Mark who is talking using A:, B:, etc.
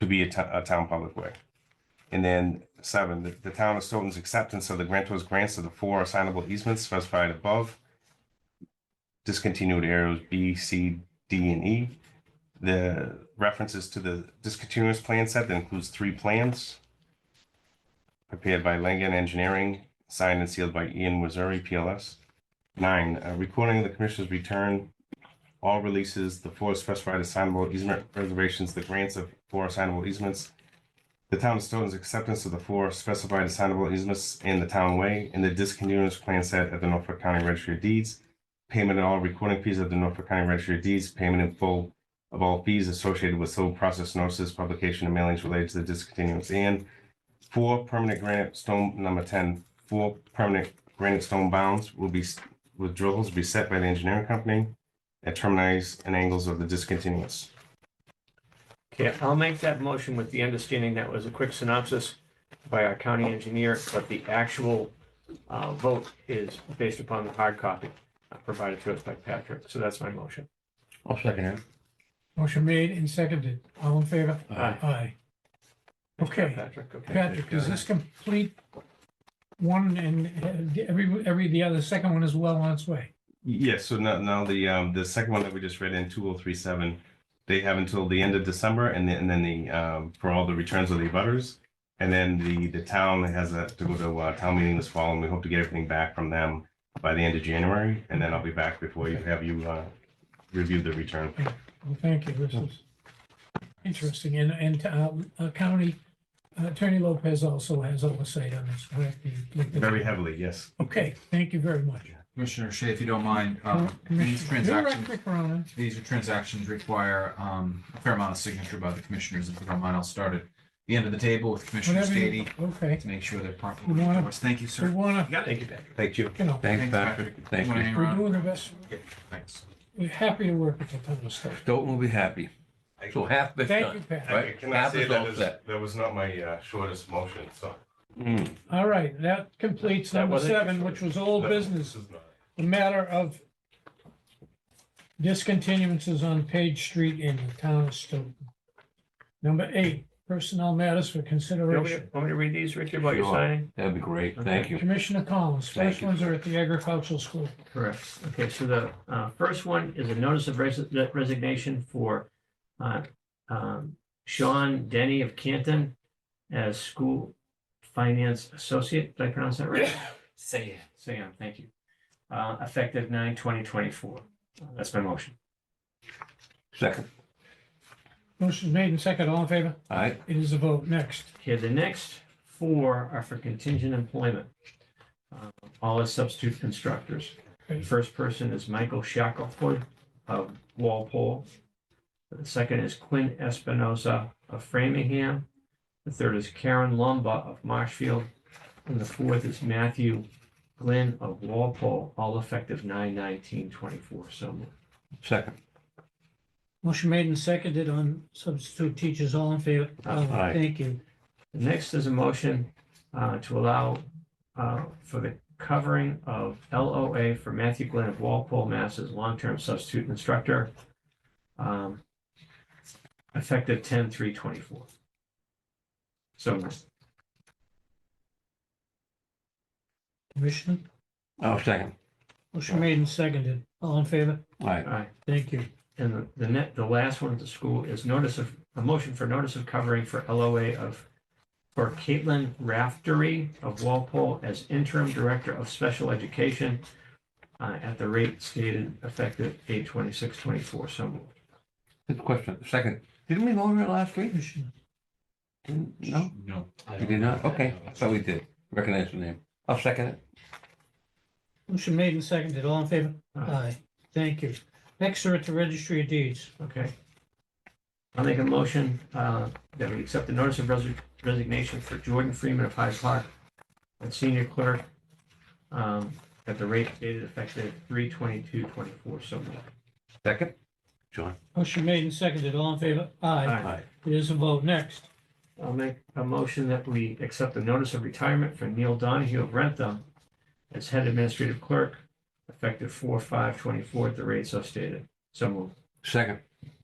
A: to be a to- a town public way. And then seven, the, the town of Stoughton's acceptance of the grantor's grants of the four assignable easements specified above. Discontinued arrows B, C, D, and E. The references to the discontinuous plan set that includes three plans. Prepared by Langen Engineering, signed and sealed by Ian Missouri, PLS. Nine, uh, recording of the commissioner's return all releases, the four specified assignable easement reservations, the grants of four assignable easements, the town of Stoughton's acceptance of the four specified assignable easements in the town way, and the discontinuance plan set at the Norfolk County Registry of Deeds, payment of all recording fees of the Norfolk County Registry of Deeds, payment in full of all fees associated with civil process notices, publication, and mailings related to the discontinuance, and four permanent granite stone, number ten, four permanent granite stone bounds will be, s- with drills, be set by the engineering company at terminis and angles of the discontinuous.
B: Okay, I'll make that motion with the understanding that was a quick synopsis by our county engineer, but the actual uh, vote is based upon the hard copy uh, provided to us by Patrick. So that's my motion.
C: I'll second it.
D: Motion made and seconded. All in favor?
C: Aye.
D: Aye. Okay.
B: Patrick, okay.
D: Patrick, does this complete one and uh, every, every, the other, second one is well on its way?
A: Yes, so now, now the, um, the second one that we just read in two oh three seven, they have until the end of December and then, and then the, um, for all the returns of the butters. And then the, the town has a, to go to, uh, town meeting this fall and we hope to get everything back from them by the end of January. And then I'll be back before you have you, uh, review the return.
D: Well, thank you. This is interesting. And, and uh, uh, County Attorney Lopez also has oversight on this, correct?
A: Very heavily, yes.
D: Okay, thank you very much.
E: Commissioner Shea, if you don't mind, um, these
D: Commissioner- you're right,
E: transactions,
D: Rick Verona.
E: these are transactions require um, a fair amount of signature by the commissioners. If you don't mind, I'll start at the end of the table with Commissioner
D: Whatever you-
E: Stady
D: Okay,
E: to make sure they're properly
D: You wanna-
E: endorsed. Thank you,
D: we
E: sir.
D: want to,
B: Thank you, Patrick.
A: Thank you.
D: you know,
C: Thanks, Patrick. Thank
E: Wanna
C: you.
E: hang
D: we're
E: around?
D: doing the best,
E: Thanks.
D: we're happy to work with the town of Stowe.
C: Stoughton will be happy. So half this
D: Thank you,
C: done,
D: Pat.
C: right?
A: Can I
C: Half
A: say
C: is
A: that
C: all
A: was,
C: set.
A: that was not my, uh, shortest motion, so.
C: Mm.
D: All right, that completes
B: That
D: number
B: wasn't-
D: seven, which was old business, the matter of discontinuances on Page Street in the town of Stoughton. Number eight, personnel matters for
B: You Want me
D: consideration.
B: to- want me to read these, Richard, while you're
C: Sure.
B: signing?
C: That'd be great. Thank you.
D: Commissioner Collins,
C: Thank
D: first
C: you.
D: ones are at the agricultural school.
B: Correct. Okay, so the uh, first one is a notice of res- resignation for uh, um, Sean Denny of Canton as school finance associate. Did I pronounce that right?
F: Say it.
B: Sam, thank you. Uh, Effective nine twenty twenty-four. That's my motion.
C: Second.
D: Motion made and second, all in favor?
C: All right.
D: It is a vote. Next,
B: Okay, the next four are for contingent employment. Uh, All as substitute instructors. The first person is Michael Shackelford of Walpole. The second is Quinn Espinosa of Framingham. The third is Karen Lumba of Marshfield. And the fourth is Matthew Glenn of Walpole, all effective nine nineteen twenty-four. So moved.
C: Second.
D: motion made and seconded on substitute teachers, all in favor?
C: Aye.
D: Thank you.
B: The Next is a motion uh, to allow uh, for the covering of LOA for Matthew Glenn of Walpole, Mass. as long-term substitute instructor. um, Effective ten three twenty-four. So moved.
D: Commissioner,
C: Oh, second.
D: motion made and seconded, all in favor?
C: All right.
B: All right.
D: Thank you.
B: And the- the net, the last one at the school is notice of, a motion for notice of covering for LOA of, for Caitlin Raftery of Walpole as interim director of special education uh, at the rate stated effective eight twenty-six twenty-four. So moved.
C: Good question. Second. Didn't we vote on it last week?
D: Commissioner.
C: Didn't- No,
E: No.
F: I
C: we
F: don't
C: did not.
F: know.
C: Okay. I thought we did. Recognize the name. I'll second it.
D: Motion made and seconded, all in favor?
B: Aye.
D: Aye, thank you. Next are at the registry of deeds.
B: Okay. I'll make a motion uh, that we accept the notice of resi- resignation for Jordan Freeman of Hyde Park as senior clerk um, at the rate stated effective three twenty-two twenty-four. So moved.
C: Second. John.
D: Motion made and seconded, all in favor? Aye.
C: Aye.
D: It is a vote. Next,
B: I'll make a motion that we accept the notice of retirement for Neil Donahue of Rentham as head administrative clerk, effective four, five, twenty-four at the rate so stated. So moved.
C: Second.